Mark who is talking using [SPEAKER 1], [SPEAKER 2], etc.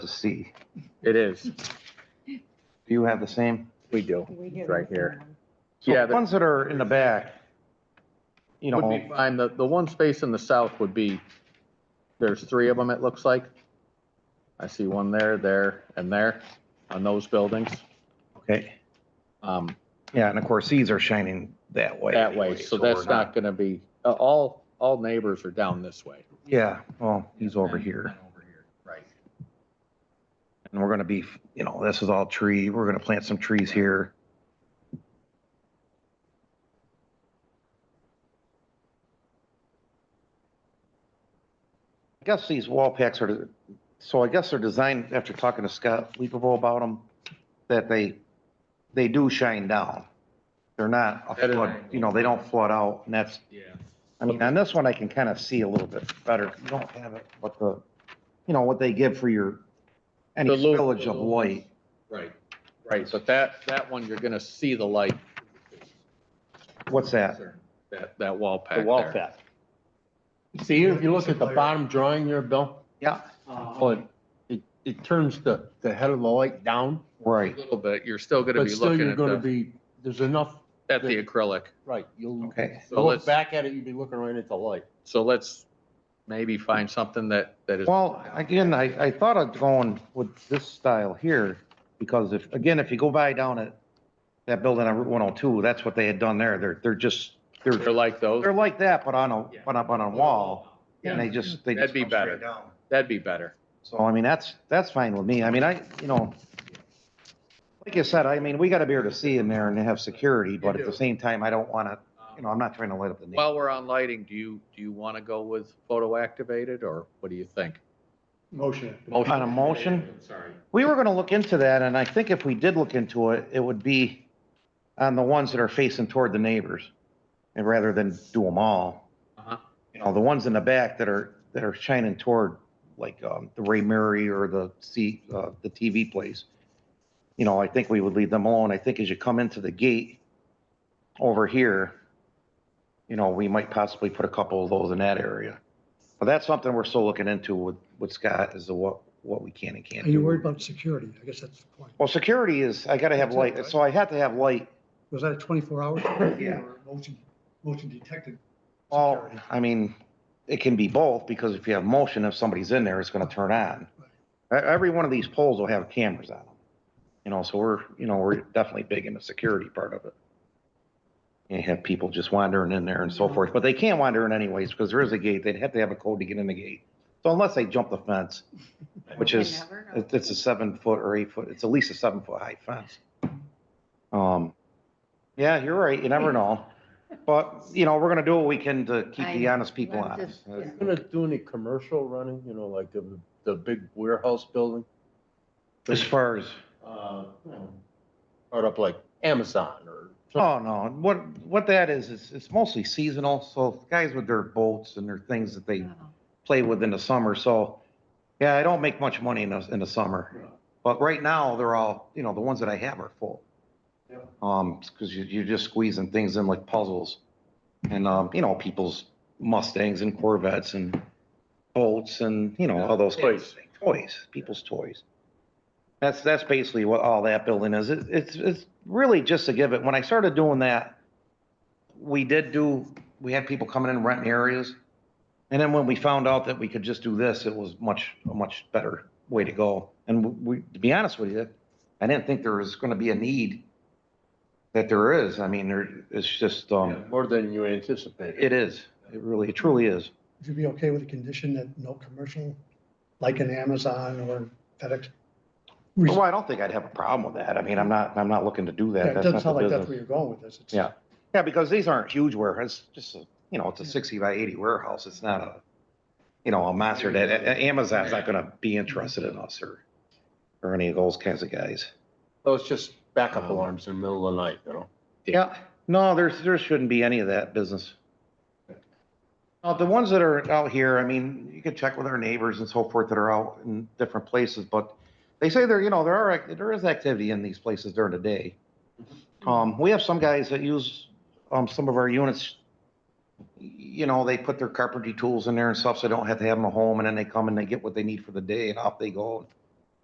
[SPEAKER 1] to see.
[SPEAKER 2] It is.
[SPEAKER 1] Do you have the same?
[SPEAKER 2] We do.
[SPEAKER 3] We
[SPEAKER 2] It's
[SPEAKER 3] get
[SPEAKER 2] right
[SPEAKER 3] them.
[SPEAKER 2] here.
[SPEAKER 1] So
[SPEAKER 2] Yeah,
[SPEAKER 1] the
[SPEAKER 2] that-
[SPEAKER 1] ones that are in the back, you
[SPEAKER 2] Would be
[SPEAKER 1] know,
[SPEAKER 2] fine. The, the one space in the south would be, there's three of them, it looks like. I see one there, there, and there on those buildings.
[SPEAKER 1] okay,
[SPEAKER 2] Um,
[SPEAKER 1] yeah, and of course, these are shining that way.
[SPEAKER 2] that way,
[SPEAKER 1] anyway,
[SPEAKER 2] so
[SPEAKER 1] we're
[SPEAKER 2] that's not gonna be, uh, all, all neighbors are down this way.
[SPEAKER 1] Yeah, well, he's over here,
[SPEAKER 2] Over here, right.
[SPEAKER 1] and we're gonna be, you know, this is all tree, we're gonna plant some trees here. I guess these wall packs are, so I guess they're designed, after talking to Scott Leaperville about them, that they, they do shine down. They're not, a
[SPEAKER 2] At an
[SPEAKER 1] flood,
[SPEAKER 2] angle.
[SPEAKER 1] you know, they don't flood out, and that's
[SPEAKER 2] Yeah.
[SPEAKER 1] I mean, on this one, I can kind of see a little bit better. You don't have it, what the, you know, what they give for your, any
[SPEAKER 2] The lo-
[SPEAKER 1] spillage of light.
[SPEAKER 2] Right, right, but that, that one, you're gonna see the light.
[SPEAKER 1] What's that?
[SPEAKER 2] That, that wall pack
[SPEAKER 4] The wall
[SPEAKER 2] there.
[SPEAKER 4] pack.
[SPEAKER 5] See, if you look at the bottom drawing there, Bill,
[SPEAKER 1] Yeah,
[SPEAKER 5] well, it- it, it turns the, the head of the light down,
[SPEAKER 2] A
[SPEAKER 1] right.
[SPEAKER 2] little bit, you're still gonna
[SPEAKER 5] but
[SPEAKER 2] be
[SPEAKER 5] still
[SPEAKER 2] looking
[SPEAKER 5] you're
[SPEAKER 2] at
[SPEAKER 5] gonna
[SPEAKER 2] the,
[SPEAKER 5] be, there's enough,
[SPEAKER 2] at the acrylic.
[SPEAKER 5] right, you'll,
[SPEAKER 1] Okay.
[SPEAKER 2] So
[SPEAKER 5] you'll look
[SPEAKER 2] let's,
[SPEAKER 5] back at it, you'll be looking right at the light.
[SPEAKER 2] so let's maybe find something that, that is.
[SPEAKER 1] Well, again, I, I thought of going with this style here because if, again, if you go by down at that building on Route 102, that's what they had done there. They're, they're just,
[SPEAKER 2] They're
[SPEAKER 1] they're,
[SPEAKER 2] like those,
[SPEAKER 1] they're like that, but on a,
[SPEAKER 2] Yeah.
[SPEAKER 1] but up on a wall. And they just, they just.
[SPEAKER 2] That'd be
[SPEAKER 1] come straight
[SPEAKER 2] better.
[SPEAKER 1] down.
[SPEAKER 2] that'd be better.
[SPEAKER 1] So, I mean, that's, that's fine with me. I mean, I, you know, like you said, I mean, we gotta be able to see in there and have security, but at the same time, I don't wanna, you know, I'm not trying to light up the neighborhood.
[SPEAKER 2] While we're on lighting, do you, do you want to go with photo activated or what do you think?
[SPEAKER 6] Motion.
[SPEAKER 1] On a motion? Sorry. We were gonna look into that, and I think if we did look into it, it would be on the ones that are facing toward the neighbors, and rather than do them all.
[SPEAKER 2] Uh-huh.
[SPEAKER 1] You know, the ones in the back that are, that are shining toward, like, um, the Ray Murray or the C, uh, the TV place. You know, I think we would leave them alone. I think as you come into the gate over here, you know, we might possibly put a couple of those in that area. But that's something we're still looking into with, with Scott is the what, what we can and can't
[SPEAKER 6] Are
[SPEAKER 1] do.
[SPEAKER 6] you worried about security? I guess that's the point.
[SPEAKER 1] Well, security is, I gotta have light, so I had to have light.
[SPEAKER 6] Was that a 24 hour? security or Motion, motion detected.
[SPEAKER 1] Well,
[SPEAKER 6] security?
[SPEAKER 1] I mean, it can be both, because if you have motion, if somebody's in there, it's gonna turn on. E- Every one of these poles will have cameras on them. You know, so we're, you know, we're definitely big in the security part of it. You have people just wandering in there and so forth, but they can't wander in anyways, because there is a gate, they'd have to have a code to get in the gate. So unless they jump the fence, which
[SPEAKER 3] You
[SPEAKER 1] is,
[SPEAKER 3] never know.
[SPEAKER 1] it- it's a seven foot or eight foot, it's at least a seven foot high fence. Um, yeah, you're right, you never know. But, you know, we're gonna do what we can to keep the
[SPEAKER 3] I-
[SPEAKER 1] honest people
[SPEAKER 3] I'm
[SPEAKER 1] honest.
[SPEAKER 3] just- yeah.
[SPEAKER 5] Gonna do any commercial running, you know, like the, the big warehouse building,
[SPEAKER 1] As far as,
[SPEAKER 5] uh, you know, right up like Amazon or. something.
[SPEAKER 1] oh no, what, what that is, is it's mostly seasonal, so guys with their boats and their things that they
[SPEAKER 3] Oh.
[SPEAKER 1] play with in the summer, so, yeah, I don't make much money in the, in the summer. But right now, they're all, you know, the ones that I have are full. Um, because you, you're just squeezing things in like puzzles. And, um, you know, people's Mustangs and Corvettes and boats and, you know, all those. kinds of
[SPEAKER 2] Toys.
[SPEAKER 1] things. Toys, people's toys. That's, that's basically what all that building is. It- It's, it's really just to give it, when I started doing that, we did do, we had people coming in renting areas. And then when we found out that we could just do this, it was much, a much better way to go. And we, to be honest with you, I didn't think there was gonna be a need that there is. I mean, there, it's just, um,
[SPEAKER 5] More than you anticipated.
[SPEAKER 1] it is. It really, it truly is.
[SPEAKER 6] Would you be okay with a condition that no commercial, like an Amazon or FedEx? Re-
[SPEAKER 1] Well, I don't think I'd have a problem with that. I mean, I'm not, I'm not looking to do
[SPEAKER 6] Yeah,
[SPEAKER 1] that.
[SPEAKER 6] It
[SPEAKER 1] That's
[SPEAKER 6] doesn't
[SPEAKER 1] not
[SPEAKER 6] sound
[SPEAKER 1] the
[SPEAKER 6] like that's
[SPEAKER 1] business.
[SPEAKER 6] where you're going with this. It's-
[SPEAKER 1] Yeah. Yeah, because these aren't huge warehouses, just, a- you know, it's a sixty by eighty warehouse. It's not a, you know, a monster that, A- A- Amazon's not gonna be interested in us or, or any of those kinds of guys.
[SPEAKER 5] So it's just backup
[SPEAKER 2] Uh-huh.
[SPEAKER 5] alarms in the middle of the night, you know?
[SPEAKER 1] Yeah, no, there's, there shouldn't be any of that business. Uh, the ones that are out here, I mean, you could check with our neighbors and so forth that are out in different places, but they say there, you know, there are, ac- there is activity in these places during the day. Um, we have some guys that use, um, some of our units, you know, they put their carpentry tools in there and stuff, so they don't have to have them at home, and then they come and they get what they need for the day, and off they go.